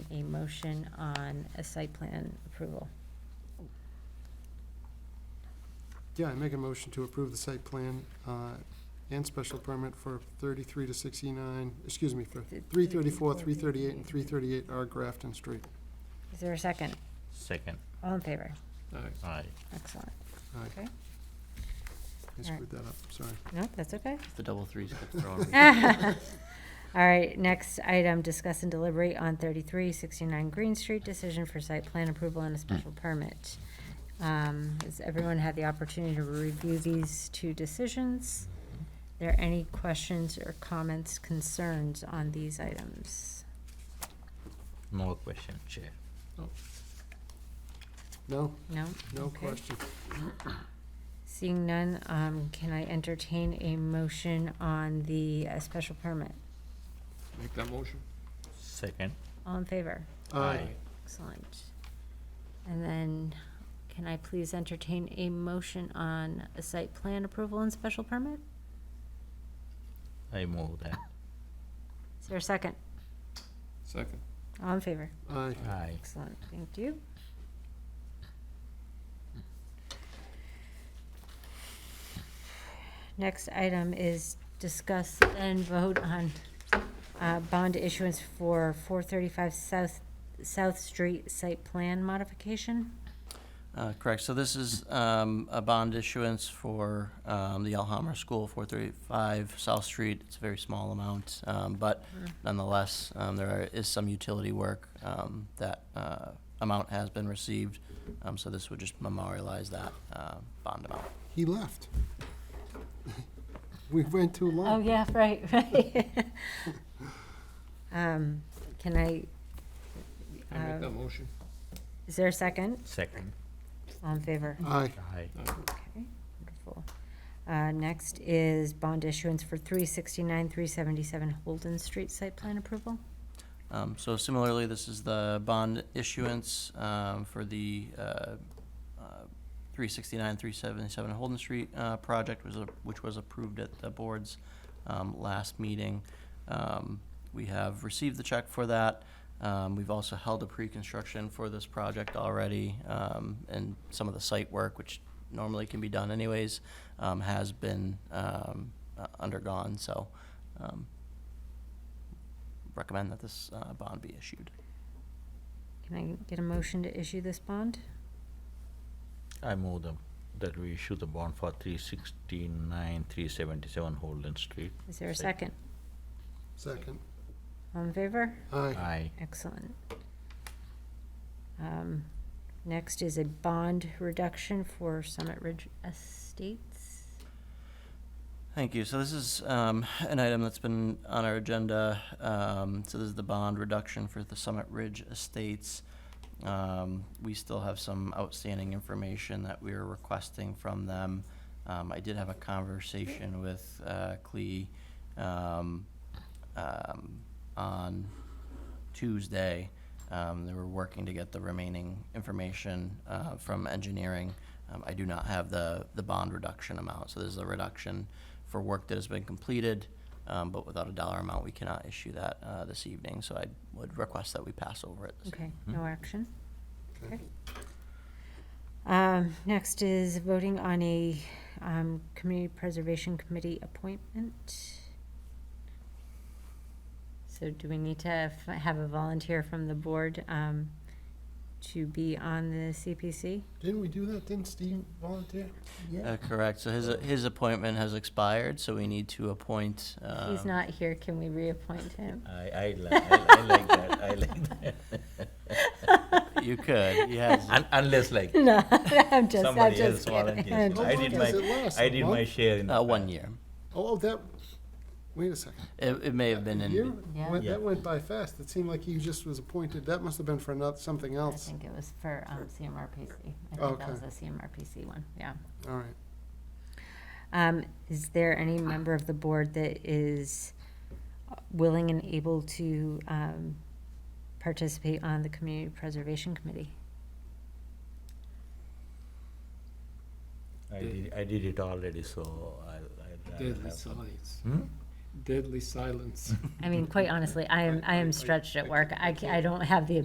a motion on a site plan approval. Yeah, I make a motion to approve the site plan uh, and special permit for 33 to 69, excuse me, for 334, 338, and 338 R Grafton Street. Is there a second? Second, All in favor? aye. Excellent. Aye. Okay. Uh, I screwed that up, sorry. No, that's okay. The double threes get thrown. Eh. All right, next item, discuss and deliberate on thirty-three sixty-nine Green Street, decision for site plan approval and a special permit. Um, has everyone had the opportunity to review these two decisions? There any questions or comments, concerns on these items? No question, Chair. No, No? no Okay. question. Seeing none, um, can I entertain a motion on the, uh, special permit? Make that motion? Second, All in favor? Aye. Excellent. And then, can I please entertain a motion on a site plan approval and special permit? I move that. Is there a second? Second. All in favor? Aye. Aye. Excellent, thank you. Next item is discuss and vote on uh, bond issuance for 435 South, South Street site plan modification. Uh, Correct. So this is um, a bond issuance for um, the Alhambra School, 435 South Street. It's a very small amount, um, but nonetheless, um, there are- is some utility work. um, That uh, amount has been received, Um, so this would just memorialize that uh, bond amount. He left. We went too Oh, long. yeah, right, right. Um, Can I, I Uh, make that motion? is there a second? Second, All in favor? Aye. aye. Okay, wonderful. Uh, Next is bond issuance for 369, 377 Holden Street site plan approval. Um, So similarly, this is the bond issuance um, for the uh, uh, 369, 377 Holden Street uh, project, was a- which was approved at the board's um, last meeting. Um, We have received the check for that. Um, We've also held a pre-construction for this project already, um, and some of the site work, which normally can be done anyways, um, has been um, uh, undergone, so um, recommend that this uh, bond be issued. Can I get a motion to issue this bond? I move them, that we issue the bond for three sixty-nine, three seventy-seven Holden Street. Is there a second? Second. Second. All in favor? Aye. Aye. Excellent. Um, Next is a bond reduction for Summit Ridge Estates. Thank you. So this is um, an item that's been on our agenda. Um, So this is the bond reduction for the Summit Ridge Estates. Um, We still have some outstanding information that we are requesting from them. Um, I did have a conversation with uh, Clea um, um, on Tuesday. Um, They were working to get the remaining information uh, from engineering. Um, I do not have the, the bond reduction amount, so there's a reduction for work that has been completed, um, but without a dollar amount, we cannot issue that uh, this evening, so I would request that we pass over it. this evening. Okay, no action. Okay. Okay. Um, Next is voting on a um, Community Preservation Committee appointment. So do we need to f- have a volunteer from the board um, to be on the CPC? Didn't we do that? Didn't Steve volunteer? Uh, Correct, so his, his appointment has expired, so we need to appoint. He's um, not here, can we reappoint him? I, I li- I, I like that, I like that. You could, he has, Un- Unless like No, I'm just, I'm somebody just else kidding. I'm volunteers. How I just long did does my, it last? I A did my month? share in. uh, the one past. year. Oh, that, wait a second. It, it may have been A in. year? Yeah. Went- Yeah. That went by fast. It seemed like he just was appointed. That must have been for another, something I else. think it was for um, CMRPC. I think that Okay. was a CMRPC one, yeah. All right. Um, is there any member of the board that is willing and able to, um, participate on the Community Preservation Committee? I did, I did it already, so I'll, I'd rather Deadly have some- silence. Hmm? Deadly silence. I mean, quite honestly, I am, I am stretched at work. I, ca- I don't have the